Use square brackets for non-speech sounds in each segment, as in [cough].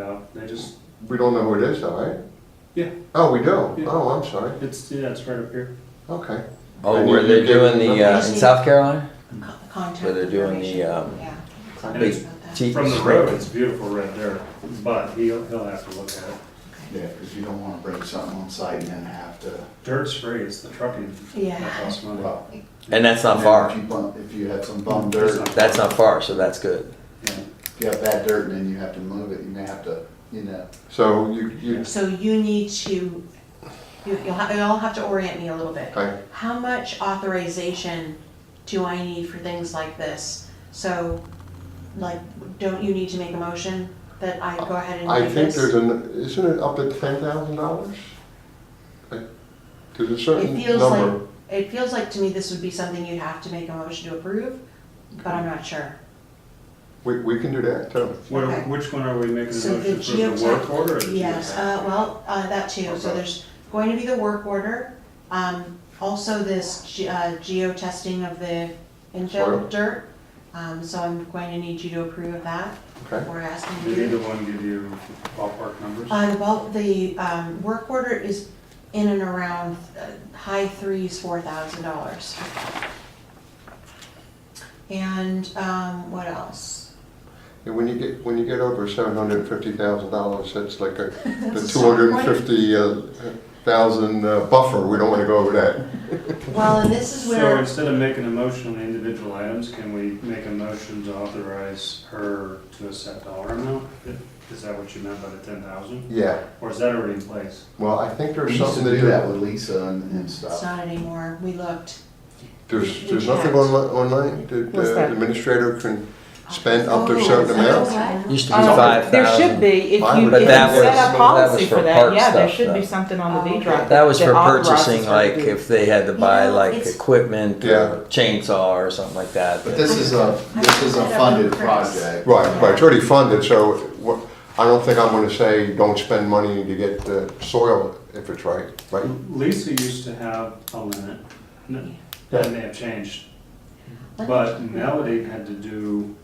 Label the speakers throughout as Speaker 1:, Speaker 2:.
Speaker 1: out. They just,
Speaker 2: We don't know who it is though, right?
Speaker 1: Yeah.
Speaker 2: Oh, we do?
Speaker 1: Yeah.
Speaker 2: Oh, I'm sorry.
Speaker 1: it's, yeah, it's right up here.
Speaker 2: Okay.
Speaker 3: Oh,
Speaker 2: And
Speaker 3: where
Speaker 2: you-
Speaker 3: they're
Speaker 2: you gave
Speaker 3: doing
Speaker 2: them
Speaker 3: the, uh, in
Speaker 4: information?
Speaker 3: South Carolina?
Speaker 4: contact
Speaker 3: Where they're doing the,
Speaker 4: information.
Speaker 3: um,
Speaker 4: Yeah.
Speaker 1: And it's
Speaker 3: Te-
Speaker 1: from the road, it's beautiful right there, but he'll, he'll have to look at it.
Speaker 5: Yeah, because you don't want to break something on site and then have to.
Speaker 1: Dirt's free, it's the trucking that
Speaker 4: Yeah.
Speaker 1: costs money.
Speaker 5: well,
Speaker 3: And that's not
Speaker 5: and then If
Speaker 3: far.
Speaker 5: you bump, if you had some bum
Speaker 1: That's
Speaker 5: dirt,
Speaker 1: not-
Speaker 3: That's not far, so that's good.
Speaker 1: Yeah.
Speaker 5: if you have bad dirt and then you have to move it, you may have to, you know,
Speaker 2: So you, you,
Speaker 4: So you need to, you, you'll have, you'll have to orient me a little bit.
Speaker 2: okay,
Speaker 4: How much authorization do I need for things like this? So, like, don't you need to make a motion that I go ahead and
Speaker 2: I
Speaker 4: do
Speaker 2: think
Speaker 4: this?
Speaker 2: there's an, isn't it up to ten thousand dollars? There's a certain
Speaker 4: It feels
Speaker 2: number.
Speaker 4: like, it feels like to me this would be something you'd have to make a motion to approve, but I'm not sure.
Speaker 2: We, we can do that too.
Speaker 1: Where,
Speaker 4: Okay.
Speaker 1: which one are we making the
Speaker 4: So the
Speaker 1: motion for, the
Speaker 4: geotech-
Speaker 1: work order or the
Speaker 4: Yes,
Speaker 1: geotech?
Speaker 4: uh, well, uh, that too, so
Speaker 1: Okay.
Speaker 4: there's going to be the work order, um, also this ge- uh, geo-testing of the
Speaker 2: Soil.
Speaker 4: infill dirt. Um, so I'm going to need you to approve of that,
Speaker 2: Okay.
Speaker 4: we're asking you.
Speaker 1: Did either one give you ballpark numbers?
Speaker 4: Uh, well, the, um, work order is in and around, uh, high threes, four thousand dollars. And, um, what else?
Speaker 2: And when you get, when you get over seven hundred and fifty thousand dollars, that's like
Speaker 4: [laughs]
Speaker 2: a, the two hundred and fifty uh, thousand uh, buffer. We don't want to go over that.
Speaker 4: Well, and this is
Speaker 1: So
Speaker 4: where,
Speaker 1: instead of making a motion on the individual items, can we make a motion to authorize her to a set dollar amount? Is that what you meant by the ten thousand?
Speaker 2: Yeah.
Speaker 1: Or is that already in place?
Speaker 2: Well, I think
Speaker 5: we
Speaker 2: there's
Speaker 5: used to
Speaker 2: something to
Speaker 5: do that
Speaker 2: do.
Speaker 5: with Lisa and, and
Speaker 4: it's
Speaker 5: stuff.
Speaker 4: not anymore, we looked.
Speaker 2: There's,
Speaker 4: We
Speaker 2: there's nothing
Speaker 4: can't.
Speaker 2: onli- online. The-
Speaker 6: What's
Speaker 2: The
Speaker 6: that?
Speaker 2: administrator can spend up to a
Speaker 4: Oh,
Speaker 2: certain
Speaker 4: is that
Speaker 2: amount.
Speaker 4: okay?
Speaker 3: Used to be
Speaker 6: Um,
Speaker 3: five
Speaker 6: There should
Speaker 3: thousand.
Speaker 6: be, if
Speaker 2: Mine
Speaker 6: you,
Speaker 2: would
Speaker 6: if
Speaker 2: be-
Speaker 6: you
Speaker 2: That was-
Speaker 6: set
Speaker 2: that
Speaker 6: a
Speaker 2: was
Speaker 6: policy
Speaker 3: for
Speaker 6: for
Speaker 3: park
Speaker 6: that, yeah, there
Speaker 3: stuff,
Speaker 6: should be
Speaker 3: though.
Speaker 6: something on the
Speaker 4: Oh,
Speaker 6: deed
Speaker 4: okay.
Speaker 6: right.
Speaker 3: That was for
Speaker 6: authorizes
Speaker 3: purchasing,
Speaker 6: her to
Speaker 3: like
Speaker 6: do
Speaker 3: if they had to buy
Speaker 4: You know,
Speaker 3: like
Speaker 4: it's-
Speaker 3: equipment
Speaker 2: Yeah.
Speaker 3: or chainsaw or something like that.
Speaker 5: But this is a, this is a funded project.
Speaker 2: Right, right, it's already funded, so what, I don't think I'm gonna say, don't spend money to get the soil if it's right, right?
Speaker 1: Lisa used to have a limit, N- that may have changed,
Speaker 4: Let me-
Speaker 1: but Melody had to do,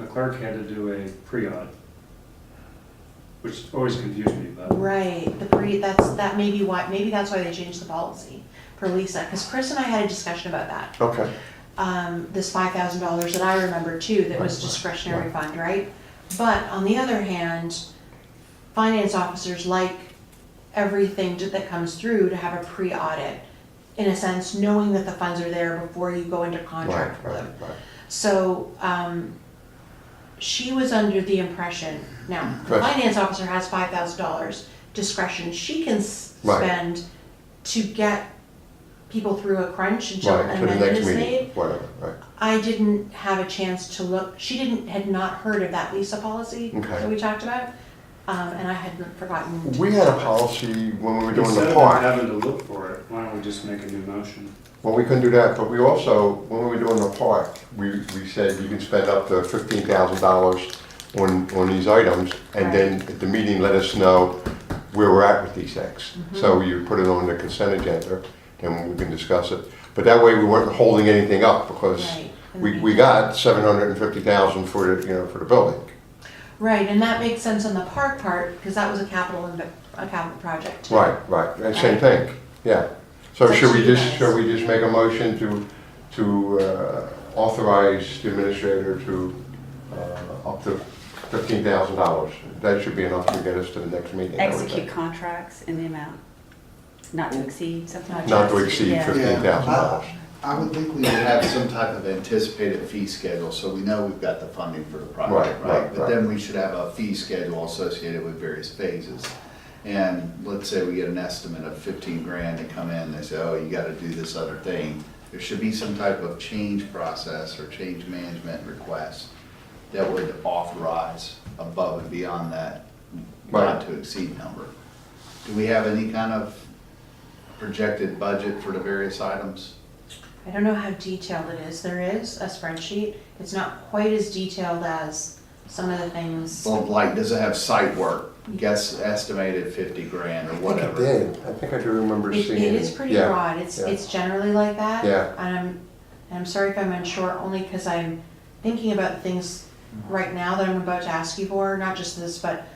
Speaker 1: the clerk had to do a pre-audit, which always confused me, but.
Speaker 4: Right, the pre, that's, that may be why, maybe that's why they changed the policy for Lisa, because Chris and I had a discussion about that.
Speaker 2: Okay,
Speaker 4: um, this five thousand dollars that I remember too, that was discretionary fund, right? But on the other hand, finance officers like everything to- that comes through to have a pre-audit. In a sense, knowing that the funds are there before you go into
Speaker 2: right,
Speaker 4: contract with
Speaker 2: right,
Speaker 4: them.
Speaker 2: right.
Speaker 4: So, um, she was under the impression, now, the
Speaker 2: Right.
Speaker 4: finance officer has five thousand dollars discretion she can s-
Speaker 2: Right.
Speaker 4: spend to get people through a crunch until
Speaker 2: Right,
Speaker 4: an
Speaker 2: to the
Speaker 4: amendment
Speaker 2: next
Speaker 4: is made.
Speaker 2: meeting, whatever, right,
Speaker 4: I didn't have a chance to look, she didn't, had not heard of that Lisa policy
Speaker 2: Okay.
Speaker 4: that we talked about. Um, and I had forgotten. to-
Speaker 2: We had a policy when we were doing
Speaker 1: Instead
Speaker 2: the
Speaker 1: of
Speaker 2: park,
Speaker 1: having to look for it, why don't we just make a new motion?
Speaker 2: well, we couldn't do that, but we also, when we were doing the park, we, we said you can spend up to fifteen thousand dollars on, on these items, and then at the meeting, let us know where we're at with these things.
Speaker 4: Mm-hmm.
Speaker 2: So you put it on the consent agenda, and we can discuss it, but that way we weren't holding anything up, because
Speaker 4: Right. and
Speaker 2: We,
Speaker 4: then-
Speaker 2: we got seven hundred and fifty thousand for the, you know, for the building.
Speaker 4: Right, and that makes sense on the park part, because that was a capital, inve- a capital project. too.
Speaker 2: Right, right, and same thing, yeah. So
Speaker 4: That's
Speaker 2: should we
Speaker 4: you
Speaker 2: just,
Speaker 4: guys.
Speaker 2: should we just make a motion to, to uh, authorize the administrator to, uh, up to fifteen thousand dollars? That should be enough to get us to the next meeting. I would
Speaker 7: execute
Speaker 2: think.
Speaker 7: contracts in the amount not to exceed something like that.
Speaker 2: Not to exceed
Speaker 7: Yeah.
Speaker 2: fifteen thousand dollars.
Speaker 5: I would think we would have some type of anticipated fee schedule, so we know we've got the funding for the
Speaker 2: Right,
Speaker 5: project,
Speaker 2: right,
Speaker 5: right? But
Speaker 2: right.
Speaker 5: then we should have a fee schedule associated with various phases. And let's say we get an estimate of fifteen grand to come in, they say, oh, you gotta do this other thing. There should be some type of change process or change management request that would authorize above and beyond that
Speaker 2: Right.
Speaker 5: not to exceed number. Do we have any kind of projected budget for the various items?
Speaker 4: I don't know how detailed it is. There is a spreadsheet. It's not quite as detailed as some of the things.
Speaker 5: Well, like, does it have site work? Guess estimated fifty grand or
Speaker 2: I think it
Speaker 5: whatever.
Speaker 2: did, I think I do remember
Speaker 4: It,
Speaker 2: seeing.
Speaker 4: it is pretty
Speaker 2: yeah.
Speaker 4: broad, it's,
Speaker 2: yeah.
Speaker 4: it's generally like that.
Speaker 2: Yeah.
Speaker 4: And I'm, and I'm sorry if I'm unsure, only because I'm thinking about things right now that I'm about to ask you for, not just this, but